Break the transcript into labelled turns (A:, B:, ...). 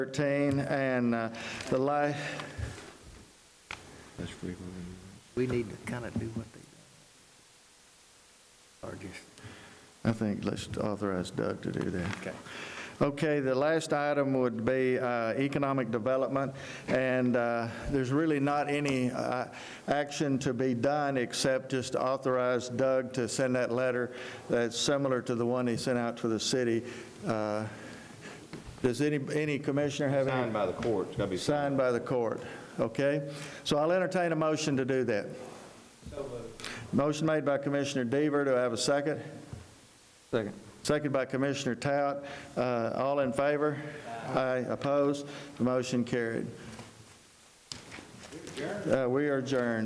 A: 13, and uh, the la,
B: We need to kind of do what they do. Or just,
A: I think let's authorize Doug to do that. Okay. Okay, the last item would be uh, economic development, and uh, there's really not any uh, action to be done except just to authorize Doug to send that letter that's similar to the one he sent out for the city. Uh, Does any, any commissioner have any?
C: Signed by the court, it's got to be signed.
A: Signed by the court, okay? So I'll entertain a motion to do that. Motion made by Commissioner Deaver, do I have a second? Second. Second by Commissioner Tout. Uh, All in favor? Aye. Opposed? The motion carried. Uh, We are adjourned.